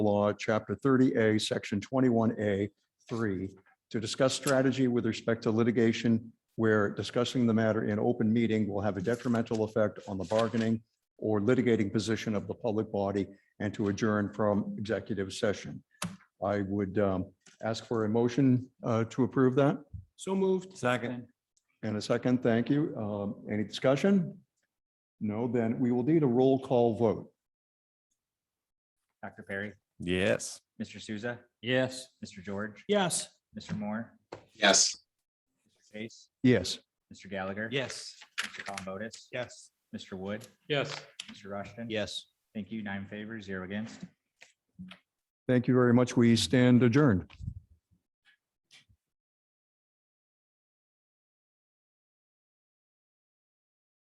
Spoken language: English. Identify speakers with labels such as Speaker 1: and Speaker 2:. Speaker 1: law, chapter thirty A, section twenty-one A, three, to discuss strategy with respect to litigation where discussing the matter in open meeting will have a detrimental effect on the bargaining or litigating position of the public body and to adjourn from executive session. I would um, ask for a motion uh, to approve that
Speaker 2: So moved. Second.
Speaker 1: and a second. Thank you. Um, Any discussion? No, then we will need a roll call vote.
Speaker 3: Dr. Perry,
Speaker 4: Yes.
Speaker 3: Mr. Souza,
Speaker 2: Yes.
Speaker 3: Mr. George,
Speaker 2: Yes.
Speaker 3: Mr. Moore,
Speaker 5: Yes.
Speaker 3: Mr. Chase,
Speaker 1: Yes.
Speaker 3: Mr. Gallagher.
Speaker 2: Yes.
Speaker 3: Mr. Columbotus.
Speaker 2: Yes.
Speaker 3: Mr. Wood,
Speaker 2: Yes.
Speaker 3: Mr. Rushton.
Speaker 2: Yes.
Speaker 3: Thank you. Nine in favor, zero against.
Speaker 1: Thank you very much. We stand adjourned.